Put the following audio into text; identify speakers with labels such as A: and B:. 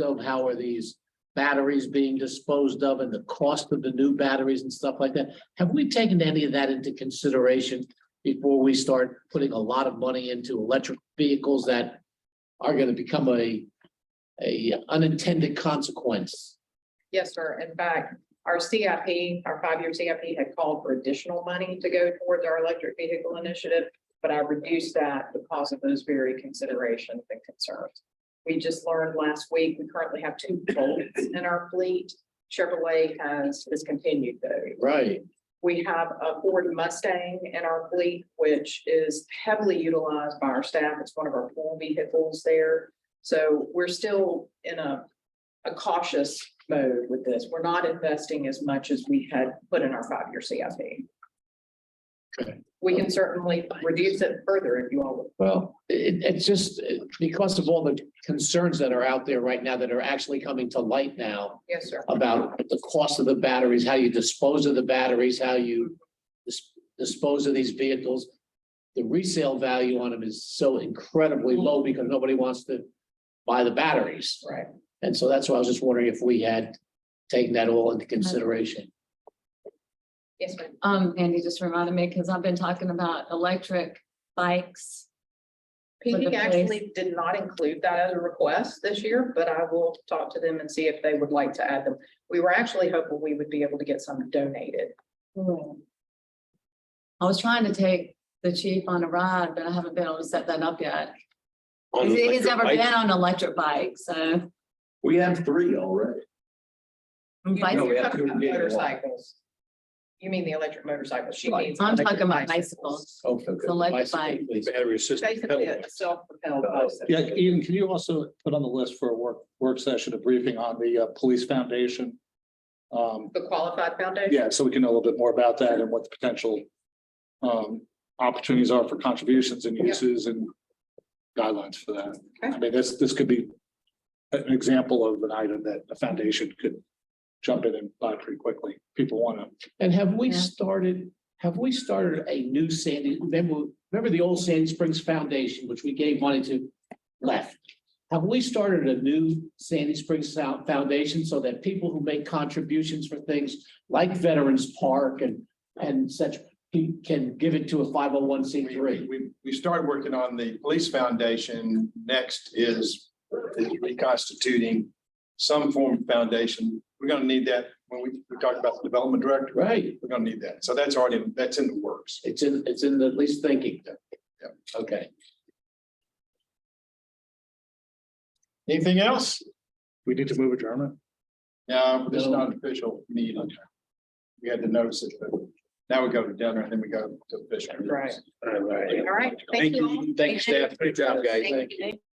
A: of, how are these batteries being disposed of and the cost of the new batteries and stuff like that? Have we taken any of that into consideration before we start putting a lot of money into electric vehicles that are gonna become a, a unintended consequence?
B: Yes, sir. In fact, our CIP, our five-year CIP had called for additional money to go towards our electric vehicle initiative. But I reduced that because of those very considerations and concerns. We just learned last week, we currently have two Bolts in our fleet. Chevrolet has discontinued those.
A: Right,
B: We have a Ford Mustang in our fleet, which is heavily utilized by our staff. It's one of our pool vehicles there. So we're still in a, a cautious mode with this. We're not investing as much as we had put in our five-year CIP.
A: Okay.
B: We can certainly reduce it further if you all would.
A: well, it, it's just uh, because of all the concerns that are out there right now that are actually coming to light now.
B: Yes, sir.
A: about the cost of the batteries, how you dispose of the batteries, how you dis- dispose of these vehicles. The resale value on them is so incredibly low because nobody wants to buy the batteries.
B: Right.
A: And so that's why I was just wondering if we had taken that all into consideration.
B: Yes, ma'am.
C: Um, Andy just reminded me, because I've been talking about electric bikes. With
B: PD
C: the
B: actually did not include that as a request this year, but I will talk to them and see if they would like to add them. We were actually hopeful we would be able to get some donated.
C: I was trying to take the chief on a ride, but I haven't been able to set that up yet.
D: on
C: He's-
D: the
C: He's
D: electric
C: never
D: bike.
C: been on an electric bike, so.
D: We have three already.
C: bike-
D: No, we
B: You're
D: have
B: talking
D: to
B: about
D: get one.
B: Motorcycles. You mean the electric motorcycles? She
D: Right.
B: needs.
C: I'm
B: electric
C: talking about
B: bicycles.
C: bicycles,
D: Okay.
C: It's an electric bike.
D: Battery assisted.
B: Basically, a self-propelled
D: Uh,
B: bicycle.
E: Yeah, Ian, can you also put on the list for a work, work session, a briefing on the uh, police foundation? Um,
B: The qualified foundation?
E: yeah, so we can know a little bit more about that and what the potential um, opportunities are for contributions and uses and guidelines for that. I mean, this, this could be an example of an item that a foundation could jump in and buy pretty quickly. People want to,
A: And have we
C: Yeah.
A: started, have we started a new Sandy, remember, remember the old Sandy Springs Foundation, which we gave money to left? Have we started a new Sandy Springs Sou- Foundation so that people who make contributions for things like Veterans Park and, and such pe- can give it to a five oh one C
F: We,
A: three?
F: we, we started working on the police foundation. Next is is reconstituting some form of foundation. We're gonna need that when we, we talk about the development director,
A: Right,
F: we're gonna need that. So that's already, that's in the works.
A: it's in, it's in the at least thinking.
F: Yep.
A: Okay,
F: Anything else?
E: we need to move adjournment.
F: No, this is not an official meeting. We had to notice it, but now we go to dinner and then we go to official. meetings.
B: Right.
D: All right.
B: All right.
D: Thank
B: all.
D: you, thank you, staff. Good job, guys.
B: Thank you.